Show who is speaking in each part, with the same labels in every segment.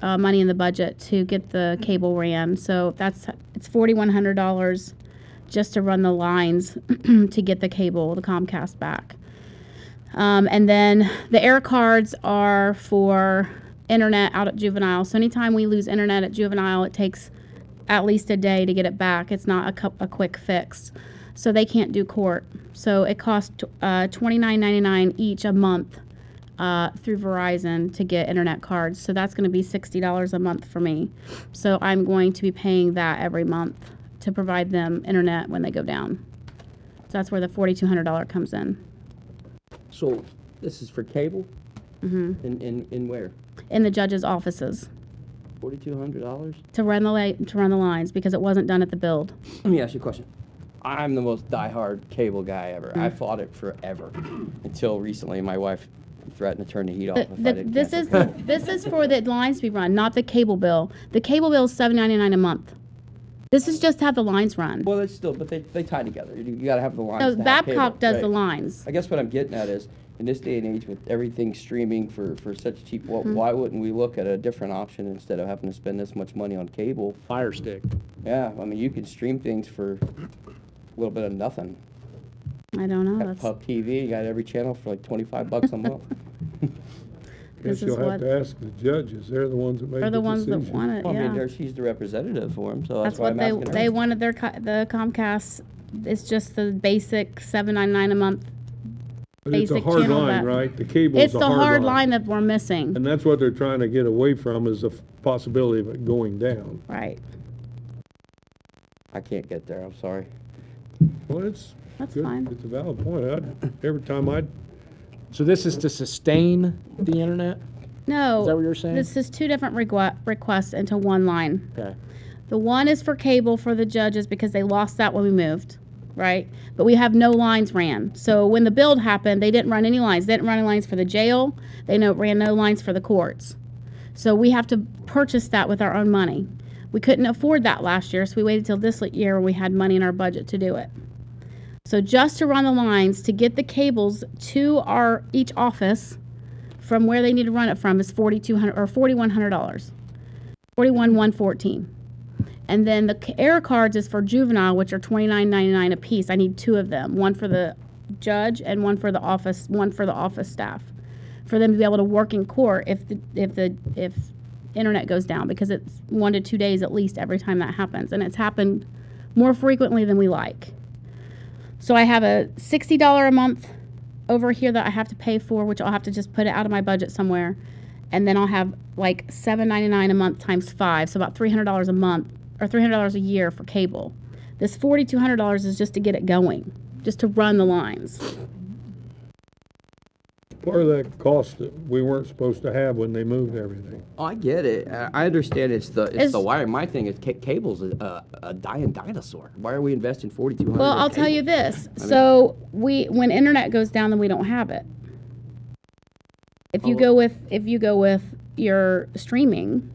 Speaker 1: uh, money in the budget to get the cable ran. So that's it's forty one hundred dollars just to run the lines to get the cable, the Comcast back. Um, and then the air cards are for internet out at juvenile. So anytime we lose internet at juvenile, it takes at least a day to get it back. It's not a, cup, a quick fix. So they can't do court. So it costs uh, $29.99 each a month uh, through Verizon to get internet cards. So that's going to be $60 a month for me. So I'm going to be paying that every month to provide them internet when they go down. So that's where the $4,200 comes in.
Speaker 2: So this is for cable? Mm-hmm. And, and, and where?
Speaker 1: in the judges' offices
Speaker 2: Forty-two hundred dollars?
Speaker 1: to run the li- to run the lines because it wasn't done at the build.
Speaker 2: Let me ask you a question. I'm the most diehard cable guy ever. I fought it forever until recently. My wife threatened to turn the heat off. if Oh, I
Speaker 1: The-
Speaker 2: didn't
Speaker 1: this
Speaker 2: cancel
Speaker 1: is
Speaker 2: cable.
Speaker 1: the, this is for the lines to be run, not the cable bill. The cable bill is seven ninety nine a month. This is just to have the lines run.
Speaker 2: Well, it's still, but they, they tie together. You, you gotta have the lines.
Speaker 1: So
Speaker 2: to have cable,
Speaker 1: Babcock Oh, does the
Speaker 2: right.
Speaker 1: lines.
Speaker 2: I guess what I'm getting at is, in this day and age, with everything streaming for, for such cheap, wh-
Speaker 1: Mm-hmm.
Speaker 2: why wouldn't we look at a different option instead of having to spend this much money on cable?
Speaker 3: Fire stick.
Speaker 2: Yeah, I mean, you can stream things for a little bit of nothing.
Speaker 1: I don't know.
Speaker 2: Got
Speaker 1: Oh, That's,
Speaker 2: Pub TV, you got every channel for like twenty-five bucks a month.
Speaker 1: This
Speaker 4: Guess
Speaker 1: is
Speaker 4: you'll
Speaker 1: what-
Speaker 4: have to ask the judges, they're the ones that make
Speaker 1: they're
Speaker 4: the
Speaker 1: the ones that
Speaker 4: decision.
Speaker 1: want it.
Speaker 2: Well, I mean,
Speaker 1: Yeah.
Speaker 2: there, she's the representative for him, so
Speaker 1: That's
Speaker 2: that's why
Speaker 1: what
Speaker 2: I'm
Speaker 1: they
Speaker 2: asking
Speaker 1: they
Speaker 2: her.
Speaker 1: wanted their co- the Comcast. It's just the basic seven ninety nine a month.
Speaker 4: But it's a
Speaker 1: basic
Speaker 4: hard
Speaker 1: channel
Speaker 4: line,
Speaker 1: that-
Speaker 4: right? The cable's
Speaker 1: It's
Speaker 4: a
Speaker 1: the hard line
Speaker 4: line.
Speaker 1: that we're missing.
Speaker 4: And that's what they're trying to get away from is the f- possibility of it going down.
Speaker 1: Right.
Speaker 2: I can't get there, I'm sorry.
Speaker 4: Well, it's.
Speaker 1: That's
Speaker 4: good.
Speaker 1: fine.
Speaker 4: It's a valid point. I'd, every time I'd,
Speaker 3: So this is to sustain the internet?
Speaker 1: No.
Speaker 3: Is that what you're saying?
Speaker 1: This is two different requ- requests into one line.
Speaker 3: Okay.
Speaker 1: The one is for cable for the judges because they lost that when we moved, right? But we have no lines ran. So when the build happened, they didn't run any lines. They didn't run any lines for the jail. They no, ran no lines for the courts. So we have to purchase that with our own money. We couldn't afford that last year, so we waited till this year when we had money in our budget to do it. So just to run the lines to get the cables to our each office from where they need to run it from is forty two hundred or forty one hundred dollars, forty one one fourteen. And then the c- air cards is for juvenile, which are twenty nine ninety nine a piece. I need two of them, one for the judge and one for the office, one for the office staff, for them to be able to work in court if the if the if internet goes down because it's one to two days at least every time that happens, and it's happened more frequently than we like. So I have a sixty dollar a month over here that I have to pay for, which I'll have to just put it out of my budget somewhere, and then I'll have like seven ninety nine a month times five, so about three hundred dollars a month or three hundred dollars a year for cable. This forty two hundred dollars is just to get it going, just to run the lines.
Speaker 4: part of that cost that we weren't supposed to have when they moved everything.
Speaker 2: Oh, I get it. I I understand it's the, it's the
Speaker 1: It's-
Speaker 2: wire. My thing is ca- cable's a, a dying dinosaur. Why are we investing forty-two hundred?
Speaker 1: Well, I'll tell you this. So we, when internet goes down, then we don't have it. If you
Speaker 2: Oh.
Speaker 1: go with, if you go with your streaming,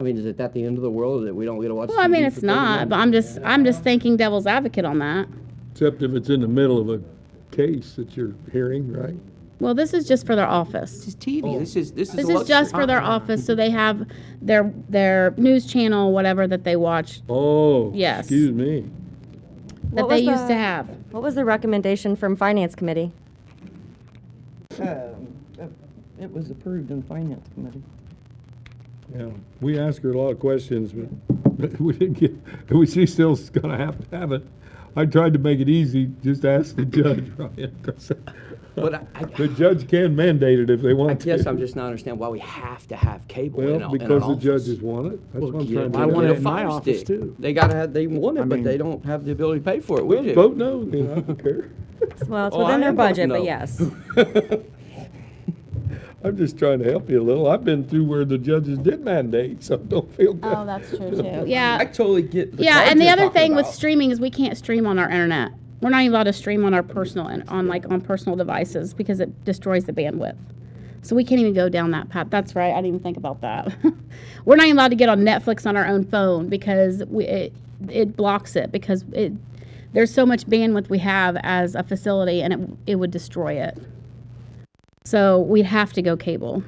Speaker 2: I mean, is it that the end of the world that we don't get to watch?
Speaker 1: well, I mean,
Speaker 2: TV
Speaker 1: it's
Speaker 2: for 30
Speaker 1: not,
Speaker 2: minutes?
Speaker 1: but I'm just, I'm just thinking devil's advocate on that.
Speaker 4: Except if it's in the middle of a case that you're hearing, right?
Speaker 1: Well, this is just for their office.
Speaker 2: This is TV. This is, this is.
Speaker 1: This is just for their office, so they have their, their news channel, whatever that they watch,
Speaker 4: Oh.
Speaker 1: Yes.
Speaker 4: Excuse me.
Speaker 1: that
Speaker 5: What was
Speaker 1: they used to
Speaker 5: the-
Speaker 1: have.
Speaker 5: What was the recommendation from Finance Committee?
Speaker 6: Uh, It was approved in Finance Committee.
Speaker 4: Yeah, we ask her a lot of questions, but- but we didn't get, we, she's still gonna have to have it. I tried to make it easy, just ask the judge, Ryan. 'cause
Speaker 2: But I, I,
Speaker 4: The judge can mandate it if they
Speaker 2: I
Speaker 4: want to.
Speaker 2: guess I'm just not understanding why we have to have cable in
Speaker 4: Well,
Speaker 2: a- in an
Speaker 4: because the
Speaker 2: office.
Speaker 4: judges want it. That's
Speaker 2: Well,
Speaker 4: what I'm
Speaker 2: get
Speaker 4: trying
Speaker 2: it.
Speaker 4: to.
Speaker 3: I
Speaker 2: Get
Speaker 4: do.
Speaker 3: want it
Speaker 2: a
Speaker 3: in my
Speaker 2: fire
Speaker 3: office,
Speaker 2: stick.
Speaker 3: too.
Speaker 2: They gotta have, they want it, but they
Speaker 3: mean-
Speaker 2: don't have the ability to pay for it. We do.
Speaker 4: Vote no, then I don't care.
Speaker 5: Well, it's
Speaker 2: Oh, I
Speaker 5: within their
Speaker 2: am voting
Speaker 5: budget,
Speaker 2: no.
Speaker 5: but yes.
Speaker 4: I'm just trying to help you a little. I've been through where the judges did mandate, so don't feel bad.
Speaker 1: Oh, that's true too.
Speaker 2: I
Speaker 1: Yeah,
Speaker 2: totally get. The
Speaker 1: yeah,
Speaker 2: cards
Speaker 1: and the
Speaker 2: you're
Speaker 1: other
Speaker 2: talking
Speaker 1: thing with
Speaker 2: about.
Speaker 1: streaming is we can't stream on our internet. We're not even allowed to stream on our personal, and on like on personal devices because it destroys the bandwidth. So we can't even go down that path. That's right. I didn't even think about that. We're not even allowed to get on Netflix on our own phone because we, it it blocks it because it there's so much bandwidth we have as a facility and it it would destroy it. So we'd have to go cable.